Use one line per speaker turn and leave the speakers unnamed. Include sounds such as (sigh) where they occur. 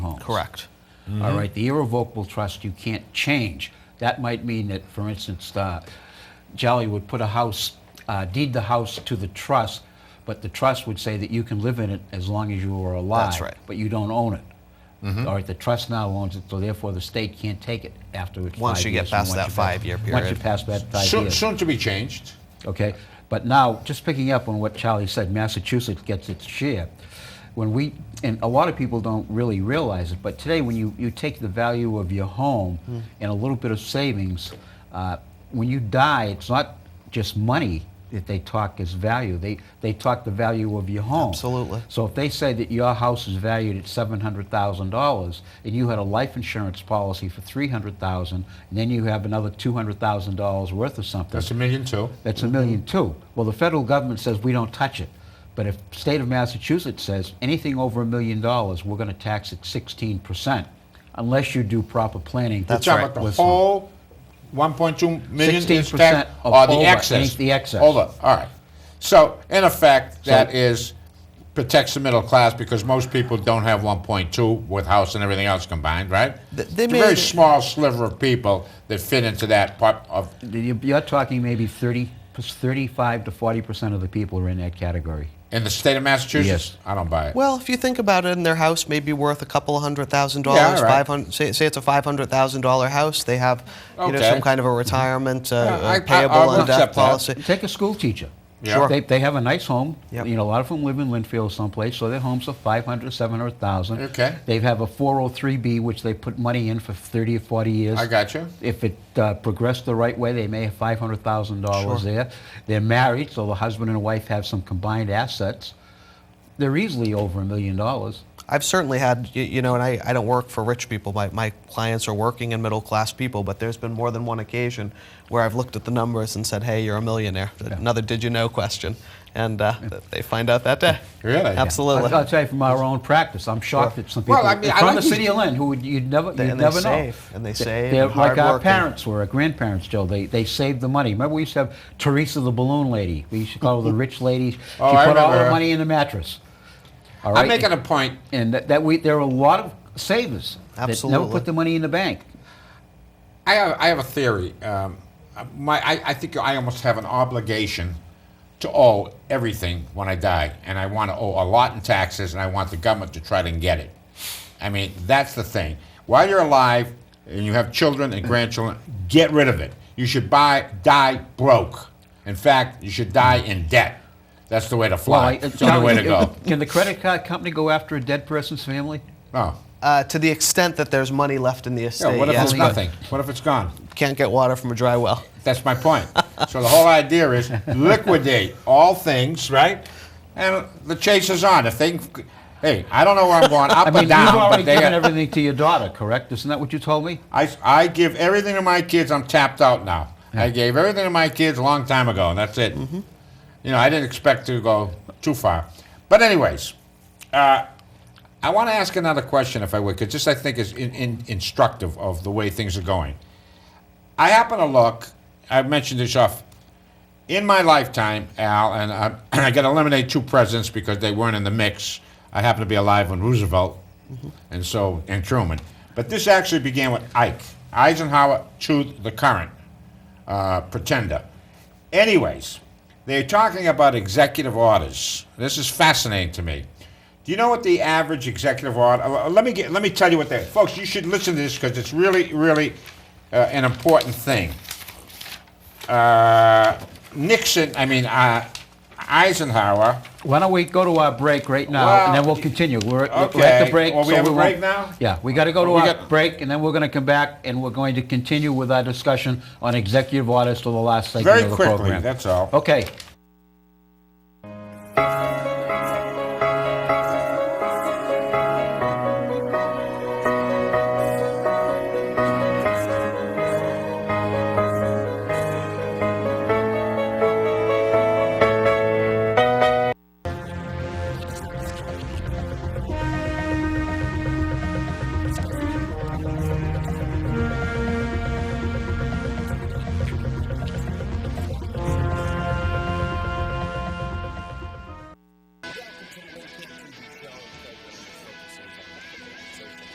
Correct.
All right, the irrevocable trust you can't change. That might mean that, for instance, uh, Jolly would put a house, uh, deed the house to the trust, but the trust would say that you can live in it as long as you are alive.
right. Mm-hmm.
But you don't own it. All right, the trust now owns it, so therefore the state can't take it after it's
Once
five
you get
years from
past
once
that
you pass-
five-year
Once you
period.
pass that five
Soon,
years.
soon to be changed.
Okay, but now, just picking up on what Charlie said, Massachusetts gets its share. When we, and a lot of people don't really realize it, but today when you, you take the value of your home and a little bit of savings, uh, when you die, it's not just money that they talk as value. They, they talk the value of your home.
Absolutely.
So if they say that your house is valued at seven hundred thousand dollars, and you had a life insurance policy for three hundred thousand, and then you have another two hundred thousand dollars worth of something,
That's a million too.
that's a million too. Well, the federal government says we don't touch it. But if the state of Massachusetts says anything over a million dollars, we're going to tax it 16%, unless you do proper planning.
That's
You're
right.
talking about the
Listen.
whole 1.2 million is
16%
tax,
of
or the
over,
excess.
ain't the excess.
Over. All right. So in effect, that is protects the middle class because most people don't have 1.2 with house and everything else combined, right?
Th- they
it's a very
made-
small sliver of people that fit into that part of.
You- You're talking maybe 30, 35 to 40% of the people are in that category.
In the state of Massachusetts,
Yes.
I don't buy it.
Well, if you think about it, and their house may be worth a couple of hundred thousand
Yeah, all
dollars,
right.
five hundred. Say, say it's a five hundred thousand dollar house. They have, you know,
Okay.
some kind of a retirement uh,
Yeah, I- I-
uh, payable
I'll
and death
accept that.
policy.
Take a school teacher.
Yeah. Sure.
They, they have a nice home.
Yep.
You know, a lot of them live in Linfield someplace, so their homes are 500, 700,000.
Okay.
They have a 403B, which they put money in for 30 or 40 years.
I got you.
If it uh, progressed the right way, they may have five hundred thousand
Sure.
dollars there. They're married, so the husband and wife have some combined assets. They're easily over a million dollars.
I've certainly had, you, you know, and I, I don't work for rich people. My, my clients are working and middle class people, but there's been more than one occasion where I've looked at the numbers and said, hey, you're a millionaire. Another did you know question. And uh, th- they find out that day.
Really? Yeah.
Absolutely.
I'll, I'll tell you from our own practice, I'm shocked that some people
Well, I mean, I
from
like
the
these-
city of Lynn who would, you'd never,
They-
you'd
and they
never know.
save, and they save,
They're
and
like our
hardworking.
parents were, our grandparents, Joe. They they saved the money. Remember, we used to have Teresa the balloon lady. We used to call her the rich lady.
Oh,
she
I
put all
remember
her
her.
money in the mattress. All right.
I'm making a point.
and that, that we there are a lot of savers that never
Absolutely.
put the money in the bank.
I have, I have a theory. Um, my, I, I think I almost have an obligation to owe everything when I die, and I want to owe a lot in taxes, and I want the government to try to get it. I mean, that's the thing. While you're alive and you have children and grandchildren, get rid of it. You should buy, die broke. In fact, you should die in debt. That's the way to fly.
Well, I- uh,
it's the only way to go.
Can the credit card company go after a dead person's family?
No.
Uh, to the extent that there's money left in the estate,
Yeah, Oh, what if
yes,
it's
but
nothing? What if it's gone?
Can't get water from a dry well.
That's my point. so the whole idea is liquidate all things, right? And the chase is on. If they, can- hey, I don't know where I'm going, up
I mean,
and down,
you've already
but they.
given everything to your daughter, correct? Isn't that what you told me?
I, I give everything to my kids. I'm tapped out now. I gave everything to my kids a long time ago, and that's it.
Mm-hmm.
You know, I didn't expect to go too far. But anyways, uh, I want to ask another question, if I would, because this I think is in, in, instructive of the way things are going. I happen to look. I've mentioned this off in my lifetime, Al, and I, (clears throat) I got to eliminate two presidents because they weren't in the mix. I happen to be alive when Roosevelt, and so and Truman. But this actually began with Ike Eisenhower to the current uh, pretender. Anyways, they're talking about executive orders. This is fascinating to me. Do you know what the average executive order? uh, Let me get, let me tell you what they, folks. You should listen to this because it's really, really uh, an important thing uh, Nixon, I mean, uh, Eisenhower.
Why don't we go to our break right now, and then
Well,
we'll continue. We're, we're at
okay.
the break.
Well, we have a
won't-
break now?
Yeah, we got to go to
We
our
got-
break, and then we're going to come back, and we're going to continue with our discussion on executive orders to the last segment
Very
of the
quickly,
program.
that's all.
Okay.